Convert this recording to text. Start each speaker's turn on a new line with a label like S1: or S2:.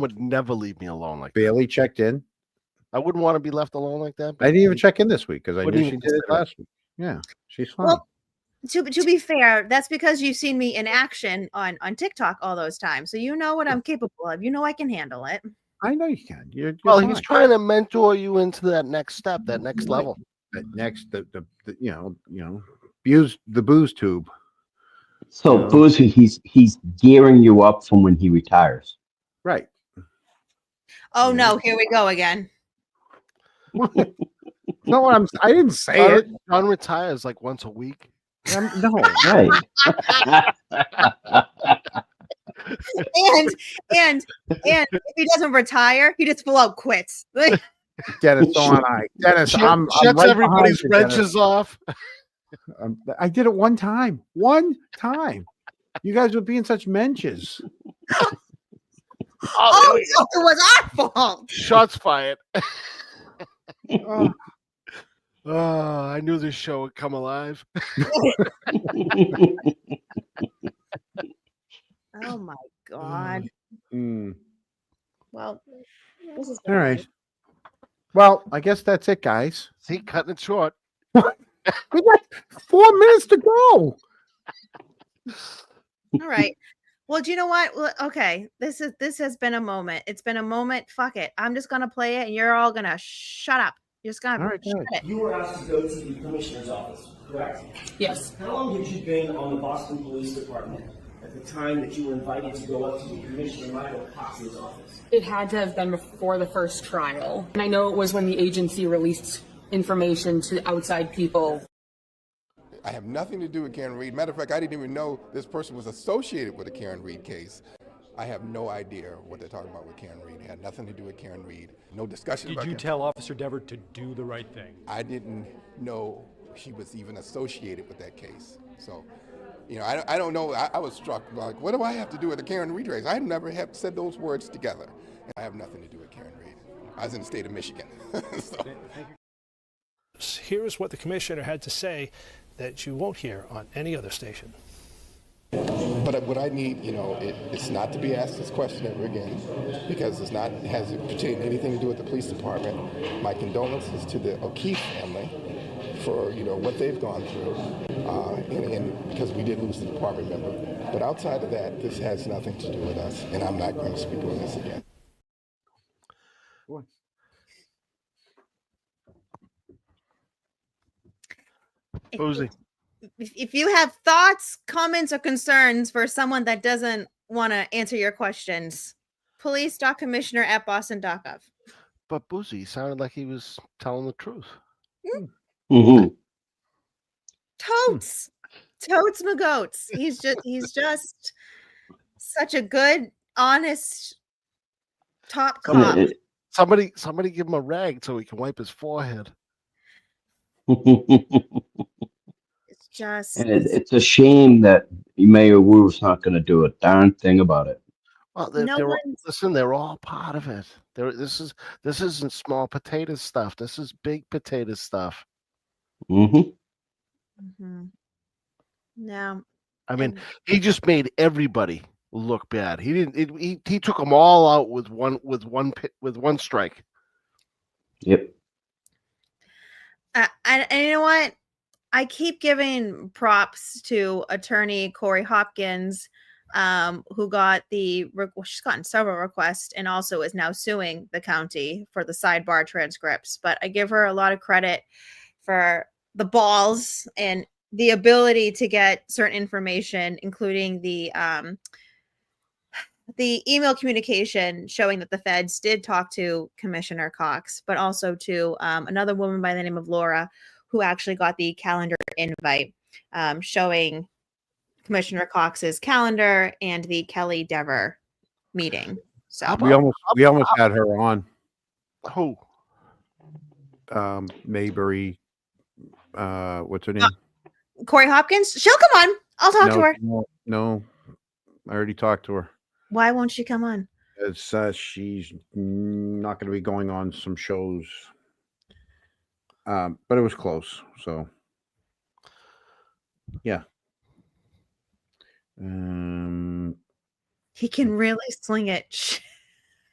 S1: would never leave me alone like that.
S2: Bailey checked in.
S1: I wouldn't want to be left alone like that.
S2: I didn't even check in this week because I
S1: Wouldn't
S2: knew she
S1: even
S2: did it
S1: consider it.
S2: last week. Yeah, she's fine.
S3: Well, to to be fair, that's because you've seen me in action on on TikTok all those times, so you know what I'm capable of. You know I can handle it.
S2: I know you can. You're, you're
S1: Well,
S2: fine.
S1: he's trying to mentor you into that next step, that next
S2: Right.
S1: level.
S2: But next, the, the, the you know you know booze the booze tube.
S4: So Boozer, he's he's gearing you up from when he retires.
S2: Right.
S3: Oh
S2: Yeah.
S3: no, here we go again.
S2: No, I'm. I didn't say it.
S1: John, John retires like once a week.
S2: I'm, no.
S4: Right.
S3: And and and if he doesn't retire, he just full out quits.
S2: Oh,
S3: Like,
S2: Dennis, so am I. Dennis,
S1: Shut-
S2: I'm, I'm
S1: shuts
S2: right
S1: everybody's
S2: behind you, Dennis.
S1: wrenches off.
S2: I'm- I did it one time. One time. You guys were being such menches.
S3: oh, no, it was our fault.
S1: Shots fired.
S2: Oh,
S1: Oh, I knew this show would come alive.
S3: Oh my god.
S2: mm.
S3: Well, this is
S2: All right. Well, I guess that's it, guys.
S1: See, cutting it short.
S2: We got four minutes to go.
S3: All right. Well, do you know what? Well, okay, this is this has been a moment. It's been a moment. Fuck it. I'm just gonna play it, and you're all gonna shut up. You're just gonna
S2: All right,
S3: shut
S2: good.
S3: it.
S5: You were asked to go to the commissioner's office, correct?
S6: Yes,
S5: How long had you been on the Boston Police Department at the time that you were invited to go up to the Commissioner Michael Cox's office?
S6: it had to have been before the first trial. And I know it was when the agency released information to outside people.
S7: I have nothing to do with Karen Reed. Matter of fact, I didn't even know this person was associated with the Karen Reed case. I have no idea what they're talking about with Karen Reed. It had nothing to do with Karen Reed. No discussion
S8: Did
S7: about
S8: you
S7: Karen-
S8: tell Officer Dever to do the right thing?
S7: I didn't know she was even associated with that case. So, you know, I, don't- I don't know. I, I was struck like, what do I have to do with the Karen Reed race? I never have said those words together. I have nothing to do with Karen Reed. I was in the state of Michigan. so.
S9: Here is what the commissioner had to say that you won't hear on any other station.
S7: But what I need, you know, it, it's not to be asked this question ever again because it's not it has it pertain anything to do with the police department. My condolences to the O'Keefe family for you know what they've gone through, uh, and, and because we did lose the department member. But outside of that, this has nothing to do with us, and I'm not going to speak on this again.
S3: If-
S1: Boozy.
S3: If, if you have thoughts, comments, or concerns for someone that doesn't want to answer your questions, police dot commissioner at boston dot gov.
S1: But Boozy sounded like he was telling the truth.
S4: Mhm.
S3: Totes, totes, magotes. He's just he's just such a good, honest top cop.
S4: It-
S1: Somebody, somebody give him a rag so he can wipe his forehead.
S4: it-
S3: It's just
S4: and it- it's a shame that Mayor Wu's not going to do a darn thing about it.
S1: Well, they're,
S3: No
S1: they're all-
S3: one's-
S1: listen, they're all part of it. They're, this is this isn't small potato stuff. This is big potato stuff.
S4: hmm
S3: hmm No.
S1: I mean,
S3: and-
S1: he just made everybody look bad. He didn't. It, he he took them all out with one with one pit with one strike.
S4: Yep.
S3: I, I, and you know what? I keep giving props to attorney Corey Hopkins, um, who got the re- well, she's gotten several requests and also is now suing the county for the sidebar transcripts. But I give her a lot of credit for the balls and the ability to get certain information, including the um, the email communication showing that the feds did talk to Commissioner Cox, but also to um, another woman by the name of Laura, who actually got the calendar invite um, showing Commissioner Cox's calendar and the Kelly Dever meeting. So,
S2: We almost we almost had her on
S1: Who?
S2: um, Mayberry. Uh, what's her name?
S3: Corey Hopkins, she'll come on. I'll talk to
S2: no,
S3: her.
S2: no, no, I already talked to her.
S3: Why won't she come on?
S2: It's, uh, she's not going to be going on some shows. Um, but it was close. So, yeah. Um,
S3: He can really sling it.